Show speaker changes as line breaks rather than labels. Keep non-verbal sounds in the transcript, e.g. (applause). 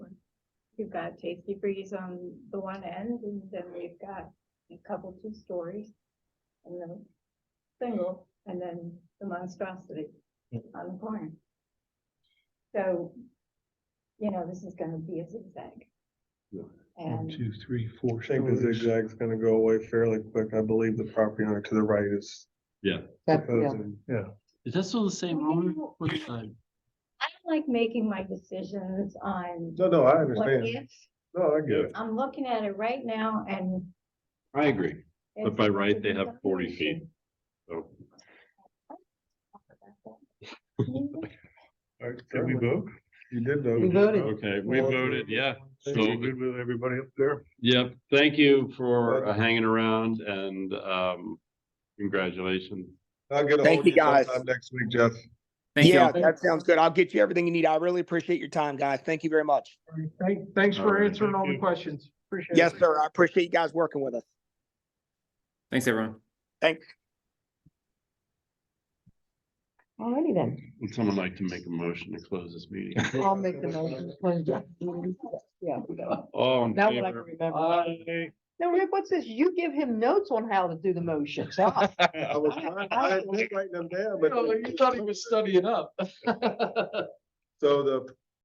We've got Tasty Freeze on the one end, and then we've got a couple two stories. And then single, and then the monstrosity
Hmm.
on the corner. So, you know, this is gonna be a zigzag.
Yeah.
One,
And
two, three, four
I think the
stories.
zigzag's gonna go away fairly quick. I believe the property owner to the right is
That, yeah,
proposing, yeah.
Is that still the same owner?
Well-
What, uh,
I don't like making my decisions on
No, no, I
what
understand.
if,
No, I get it.
I'm looking at it right now and.
I agree. But
it's-
by right, they
it's
have 40 feet. (laughs)
definitely-
So,
All right,
Did we
certainly.
vote?
You did vote.
We voted.
Okay, we
Well,
voted, yeah.
So
So-
you're good with everybody up there?
Yep, thank you for uh,
Welcome.
hanging around and, um, congratulations.
I'll get a
Thank
hold of
you, guys.
sometime Next week, Jeff.
yeah, that sounds good. I'll get you everything you need. I really appreciate your time, guys. Thank you very much.
Thank, thanks
All
for
right,
answering all
thank
the
you.
questions. Appreciate it.
Yes, sir. I appreciate you guys working with us.
Thanks, everyone.
alrighty then,
Would someone like to make a motion to close this meeting?
I'll make the motion. Yeah,
All in
now what I can
favor?
remember. No, Rick, what's this? You give him notes on how to do the motions. huh?
I was trying, I
Oh,
(laughs)
was writing them down, but
You thought he was studying up.
so the